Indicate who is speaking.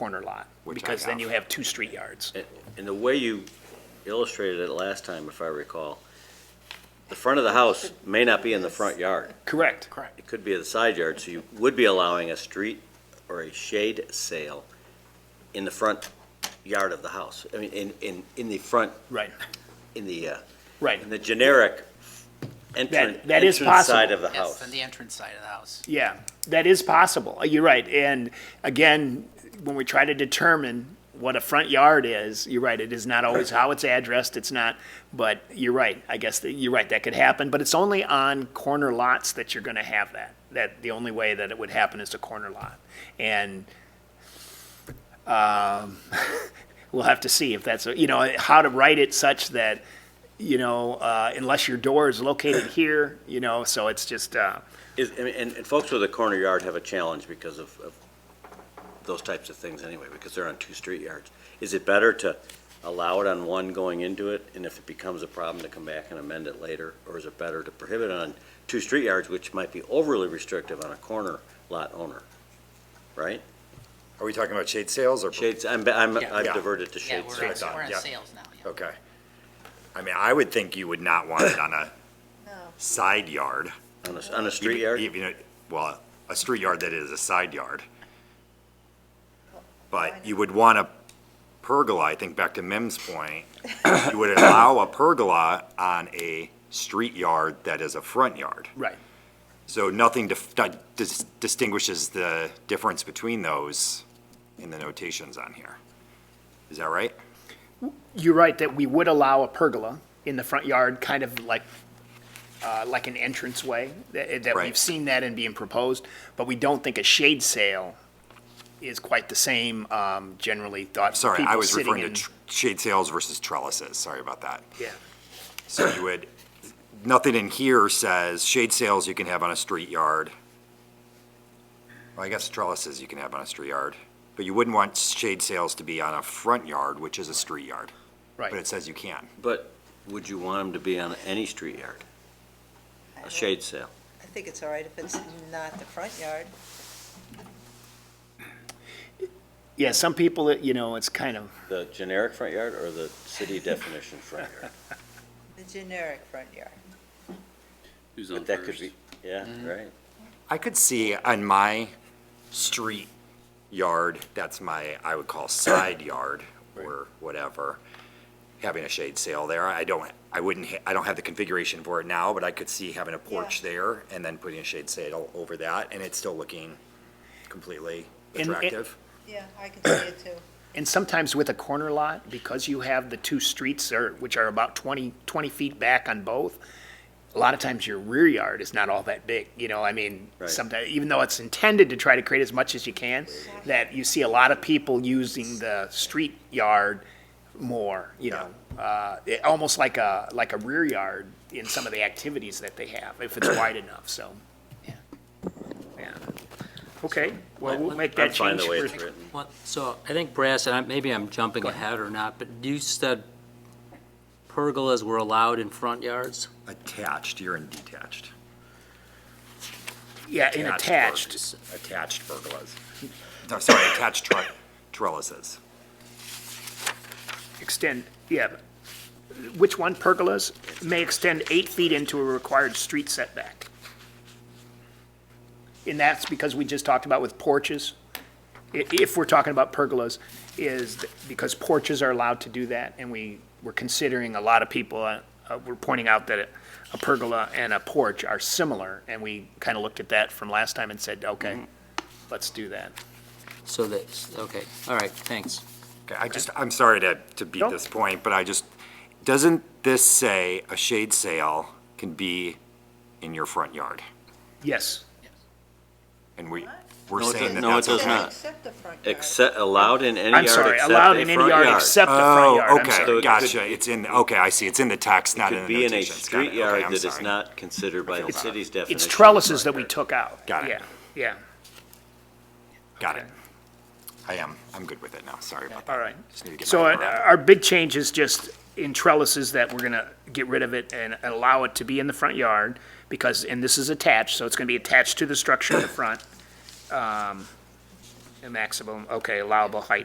Speaker 1: corner lot,
Speaker 2: Which I
Speaker 1: because then
Speaker 2: have.
Speaker 1: you have two street yards.
Speaker 3: And the way you illustrated it last time, if I recall, the front of the house may not be in the front yard.
Speaker 1: Correct.
Speaker 3: It could be in the side yard, so you would be allowing a street or a shade sale in the front yard of the house. I mean, in, in, in the front,
Speaker 1: Right,
Speaker 3: in the, uh,
Speaker 1: right.
Speaker 3: in the generic entrance,
Speaker 1: That- that is
Speaker 3: entrance side
Speaker 1: possible.
Speaker 3: of
Speaker 4: Yes,
Speaker 3: the house.
Speaker 4: on the entrance side of the house.
Speaker 1: Yeah, that is possible. Uh, You're right. And again, when we try to determine what a front yard is, you're right, it is not always how it's addressed, it's not, but you're right. I guess that, you're right, that could happen, but it's only on corner lots that you're gonna have that. That, the only way that it would happen is to corner lot. And, um, we'll have to see if that's, you know, how to write it such that, you know, uh, unless your door is located here, you know, so it's just, uh,
Speaker 3: Is, I mean, and, and folks with a corner yard have a challenge because of, of those types of things anyway, because they're on two street yards. Is it better to allow it on one going into it, and if it becomes a problem, to come back and amend it later? Or is it better to prohibit it on two street yards, which might be overly restrictive on a corner lot owner? Right?
Speaker 2: Are we talking about shade sales or?
Speaker 3: Shades, I'm, I'm, I've
Speaker 2: Yeah.
Speaker 3: diverted to
Speaker 4: Yeah,
Speaker 3: shade
Speaker 4: we're,
Speaker 3: sales.
Speaker 2: done,
Speaker 4: on- we're on
Speaker 2: yeah.
Speaker 4: sales now, yeah.
Speaker 2: Okay. I mean, I would think you would not want it on a side yard.
Speaker 3: On a, on a street yard?
Speaker 2: Even, even a- well, a street yard that is a side yard. But you would want a pergola, I think back to Mim's point, you would allow a pergola on a street yard that is a front yard.
Speaker 1: right.
Speaker 2: So nothing dif- di- dis- distinguishes the difference between those in the notations on here. Is that right?
Speaker 1: You're right that we would allow a pergola in the front yard, kind of like, uh, like an entranceway. That, that we've
Speaker 2: Right.
Speaker 1: seen that in being proposed, but we don't think a shade sail is quite the same, um, generally thought.
Speaker 2: Sorry, I
Speaker 1: people
Speaker 2: was
Speaker 1: sitting
Speaker 2: referring to
Speaker 1: in-
Speaker 2: tr- shade sales versus trellises. Sorry about that.
Speaker 1: Yeah,
Speaker 2: So you would, nothing in here says shade sales you can have on a street yard. Well, I guess trellises you can have on a street yard, but you wouldn't want shade sales to be on a front yard, which is a street yard. But it
Speaker 1: right.
Speaker 2: says you can.
Speaker 3: But would you want them to be on any street yard? A shade sale?
Speaker 5: I think it's all right if it's not the front yard.
Speaker 1: Yeah, some people, it- you know, it's kind of,
Speaker 3: The generic front yard or the city definition front yard?
Speaker 5: The generic front yard.
Speaker 6: Who's on
Speaker 3: But that could
Speaker 6: first? Mm-hmm.
Speaker 3: be, yeah, right.
Speaker 2: I could see on my street yard, that's my, I would call side yard or whatever, having a shade sale there. I don't, I wouldn't, ha- I don't have the configuration for it now, but I could see having a porch there and then putting a shade sail over that and it's still looking completely
Speaker 1: And it-
Speaker 2: attractive.
Speaker 5: Yeah, I can see it too.
Speaker 1: and sometimes with a corner lot, because you have the two streets are, which are about 20, 20 feet back on both, a lot of times your rear yard is not all that big, you know, I mean,
Speaker 3: Right.
Speaker 1: sometimes, even though it's intended to try to create as much as you can, that you see a lot of people using the street yard more, you know. Uh, it- almost like a, like a rear yard in some of the activities that they have, if it's wide enough, so. yeah. Yeah. Okay, well, we'll make
Speaker 3: I'm
Speaker 1: that
Speaker 3: fine
Speaker 1: change.
Speaker 3: the way
Speaker 1: for-
Speaker 3: it's written.
Speaker 6: Well, So I think Brass, and I- maybe I'm jumping ahead or not, but you said pergolas were allowed in front yards?
Speaker 2: Attached, you're in detached.
Speaker 1: Yeah, and attached,
Speaker 2: pergolas. Attached pergolas. No, sorry, attached tre- trellises.
Speaker 1: extend, yeah. Which one, pergolas, may extend eight feet into a required street setback. And that's because we just talked about with porches, i- if we're talking about pergolas, is th- because porches are allowed to do that, and we, we're considering a lot of people, uh, uh, we're pointing out that a pergola and a porch are similar, and we kind of looked at that from last time and said, okay,
Speaker 2: Mm-hmm.
Speaker 1: let's do that.
Speaker 6: So that, okay, all right, thanks.
Speaker 2: Okay, I just, I'm sorry to, to beat
Speaker 1: Nope.
Speaker 2: this point, but I just, doesn't this say a shade sale can be in your front yard?
Speaker 1: Yes,
Speaker 2: And we, we're
Speaker 3: No, it does-
Speaker 2: saying that
Speaker 3: no, it
Speaker 2: that's.
Speaker 3: does
Speaker 2: okay.
Speaker 3: not.
Speaker 5: Except the front yard.
Speaker 3: Except, allowed in any yard
Speaker 1: I'm
Speaker 3: except
Speaker 1: sorry,
Speaker 3: a
Speaker 1: allowed in any
Speaker 3: front
Speaker 1: yard except the front yard,
Speaker 2: Oh,
Speaker 1: I'm sorry.
Speaker 3: So
Speaker 2: okay,
Speaker 3: it
Speaker 2: gotcha, it's in, okay, I see, it's in the text, not in
Speaker 3: Could
Speaker 2: the
Speaker 3: be in a
Speaker 2: notations. Got it.
Speaker 3: street
Speaker 2: Okay,
Speaker 3: yard
Speaker 2: I'm
Speaker 3: that is
Speaker 2: sorry.
Speaker 3: not considered by the
Speaker 2: It's-
Speaker 3: city's definition.
Speaker 1: It's
Speaker 3: of
Speaker 1: trellises that
Speaker 3: front
Speaker 1: we
Speaker 3: yard.
Speaker 1: took out.
Speaker 2: Got it.
Speaker 1: Yeah, yeah,
Speaker 2: Got it. I am, I'm good with it now, sorry about that.
Speaker 1: all right.
Speaker 2: Just need to get
Speaker 1: So
Speaker 2: my
Speaker 1: uh,
Speaker 2: head around it.
Speaker 1: our big change is just in trellises that we're gonna get rid of it and allow it to be in the front yard because, and this is attached, so it's gonna be attached to the structure in the front. Um, A maximum, okay, allowable height